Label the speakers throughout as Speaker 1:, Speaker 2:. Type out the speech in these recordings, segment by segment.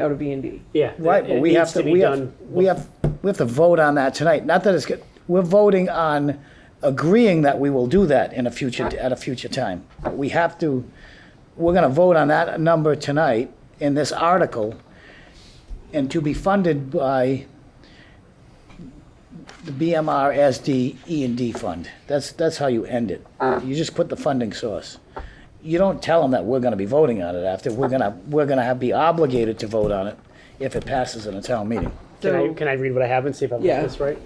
Speaker 1: out of B and D.
Speaker 2: Yeah.
Speaker 3: Right,
Speaker 2: it-
Speaker 3: but
Speaker 2: it
Speaker 3: we
Speaker 2: needs
Speaker 3: have to,
Speaker 2: be
Speaker 3: we have,
Speaker 2: done
Speaker 3: we have, we have to vote on that tonight. Not that it's good, we're voting on agreeing that we will do that in a future, at a future time. We have to, we're gonna vote on that number tonight in this article and to be funded by the BMR SD E and D fund. That's, that's how you end it. You just put the funding source. You don't tell them that we're gonna be voting on it after, we're gonna, we're gonna have, be obligated to vote on it if it passes in a town meeting.
Speaker 2: Can I,
Speaker 1: So-
Speaker 2: can I read what I have and see if I've
Speaker 1: Yeah.
Speaker 2: got this right?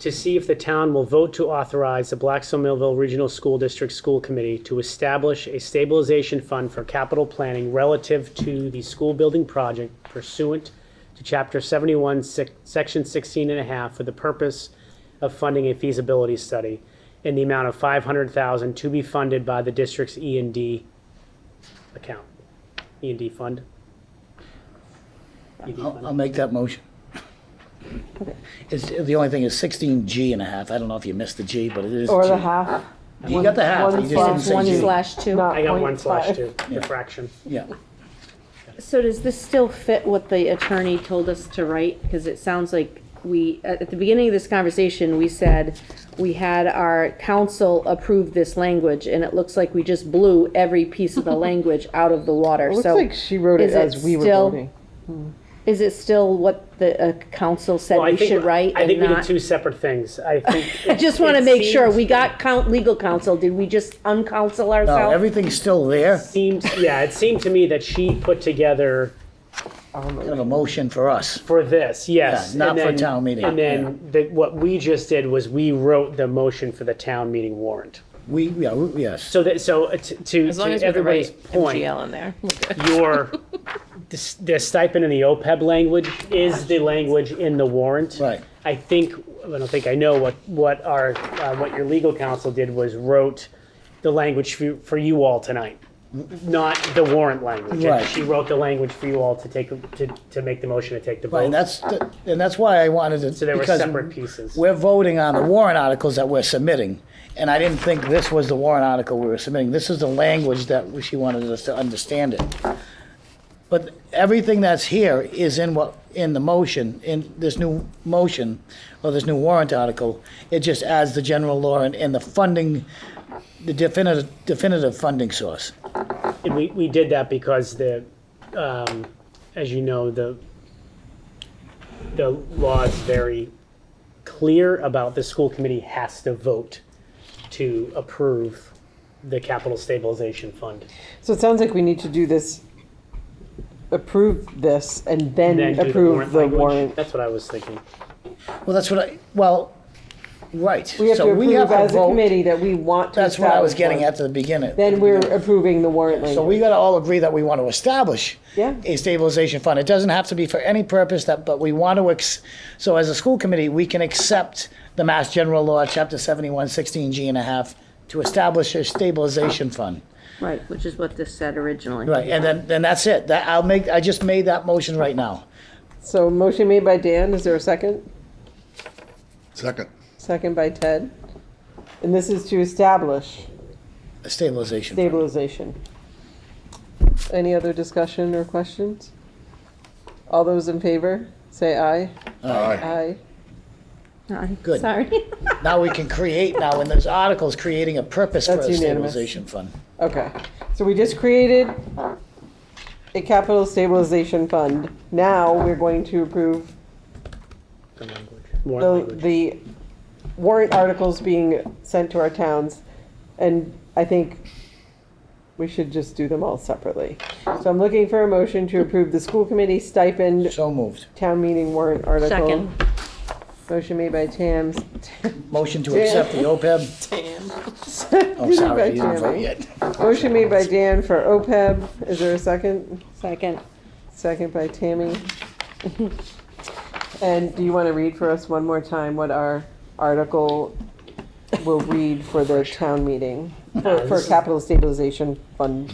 Speaker 2: To see if the town will vote to authorize the Blackstone Millville Regional School District School Committee to establish a stabilization fund for capital planning relative to the school building project pursuant to chapter seventy-one, sec- section sixteen and a half for the purpose of funding a feasibility study in the amount of five hundred thousand to be funded by the district's E and D account, E and D fund. E E&D fund.
Speaker 3: I'll, I'll make that motion. It's, the only thing is sixteen G and a half. I don't know if you missed the G, but it is.
Speaker 4: Or
Speaker 3: G.
Speaker 4: the half.
Speaker 3: You got the half, you
Speaker 4: one
Speaker 3: just didn't
Speaker 4: slash one
Speaker 3: say G.
Speaker 5: slash two.
Speaker 4: not
Speaker 2: I got
Speaker 4: point
Speaker 2: one slash
Speaker 4: five.
Speaker 2: two, refraction.
Speaker 3: Yeah,
Speaker 5: So does this still fit what the attorney told us to write? Because it sounds like we, at at the beginning of this conversation, we said we had our council approve this language, and it looks like we just blew every piece of the language out of the water,
Speaker 1: It looks
Speaker 5: so.
Speaker 1: like she wrote it
Speaker 5: is it
Speaker 1: as we were
Speaker 5: still-
Speaker 1: voting.
Speaker 5: Is it still what the uh, council said
Speaker 2: Well, I
Speaker 5: we
Speaker 2: think-
Speaker 5: should write
Speaker 2: I
Speaker 5: and
Speaker 2: think we did
Speaker 5: not?
Speaker 2: two separate things. I think.
Speaker 5: I just want to make sure, we got count, legal counsel, did we just uncounsel
Speaker 3: no,
Speaker 5: ourselves?
Speaker 3: everything's still there.
Speaker 2: Seems, yeah, it seemed to me that she put together
Speaker 3: Kind of a motion for us.
Speaker 2: for this, yes.
Speaker 3: Yeah, not
Speaker 2: and
Speaker 3: for
Speaker 2: then-
Speaker 3: town meeting,
Speaker 2: And then the, what we just did was we wrote the motion for the town meeting warrant.
Speaker 3: We, yeah, we- yes.
Speaker 2: So that, so uh, t- to,
Speaker 6: As long as
Speaker 2: to
Speaker 6: we can
Speaker 2: everybody's
Speaker 6: write
Speaker 2: point,
Speaker 6: MGL in there. we're good.
Speaker 2: your, the s- the stipend in the OPEB language is the language in the warrant.
Speaker 3: Right.
Speaker 2: I think, I don't think I know what, what our, uh, what your legal counsel did was wrote the language for, for you all tonight, not the warrant language.
Speaker 3: Right.
Speaker 2: She wrote the language for you all to take, to, to make the motion to take the vote.
Speaker 3: And that's, the- and that's why I wanted to.
Speaker 2: So there were
Speaker 3: because
Speaker 2: separate pieces.
Speaker 3: We're voting on the warrant articles that we're submitting, and I didn't think this was the warrant article we were submitting. This is the language that she wanted us to understand it. But everything that's here is in what, in the motion, in this new motion, or this new warrant article. It just adds the general law and, and the funding, the definitive, definitive funding source.
Speaker 2: And we, we did that because the, um, as you know, the, the law is very clear about the school committee has to vote to approve the capital stabilization fund.
Speaker 1: So it sounds like we need to do this, approve this, and then
Speaker 2: Then do the
Speaker 1: approve the
Speaker 2: language.
Speaker 1: warrant.
Speaker 2: That's what I was thinking.
Speaker 3: Well, that's what I, well, right.
Speaker 1: We have
Speaker 3: So
Speaker 1: to approve as a
Speaker 3: vote.
Speaker 1: committee that we want to
Speaker 3: That's what I was
Speaker 1: establish
Speaker 3: getting
Speaker 1: one.
Speaker 3: at to the beginning.
Speaker 1: Then we're approving the warrant
Speaker 3: So
Speaker 1: language.
Speaker 3: we gotta all agree that we want to establish
Speaker 1: Yeah.
Speaker 3: a stabilization fund. It doesn't have to be for any purpose that, but we want to, ex- so as a school committee, we can accept the Mass General Law, Chapter seventy-one, sixteen G and a half, to establish a stabilization fund.
Speaker 5: Right, which is what this said originally.
Speaker 3: Right, and then, then that's it. That, I'll make, I just made that motion right now.
Speaker 1: So motion made by Dan, is there a second?
Speaker 7: Second.
Speaker 1: Second by Ted. And this is to establish
Speaker 3: A stabilization fund.
Speaker 1: stabilization. Any other discussion or questions? All those in favor, say aye.
Speaker 7: Aye.
Speaker 1: Aye.
Speaker 3: Good.
Speaker 5: Sorry.
Speaker 3: Now we can create, now in those articles, creating a purpose for
Speaker 1: That's
Speaker 3: a
Speaker 1: unanimous.
Speaker 3: stabilization fund.
Speaker 1: Okay, so we just created a capital stabilization fund. Now we're going to approve
Speaker 2: The language. Warrant
Speaker 1: the,
Speaker 2: language.
Speaker 1: the warrant articles being sent to our towns. And I think we should just do them all separately. So I'm looking for a motion to approve the school committee stipend,
Speaker 3: So moved.
Speaker 1: town meeting warrant article.
Speaker 5: Second.
Speaker 1: Motion made by Tam,
Speaker 3: Motion to accept the OPEB. Oh, sorry, you didn't vote yet.
Speaker 1: motion made by Dan for OPEB. Is there a second?
Speaker 5: Second.
Speaker 1: Second by Tammy. And do you want to read for us one more time what our article will read for the town meeting? For, for capital stabilization fund.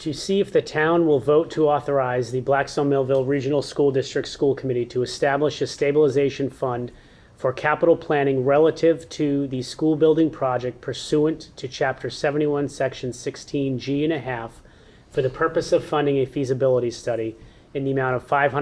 Speaker 2: to see if the town will vote to authorize the Blackstone Millville Regional School District School Committee to establish a stabilization fund for capital planning relative to the school building project pursuant to chapter seventy-one, section sixteen G and a half for the purpose of funding a feasibility study in the amount of five hundred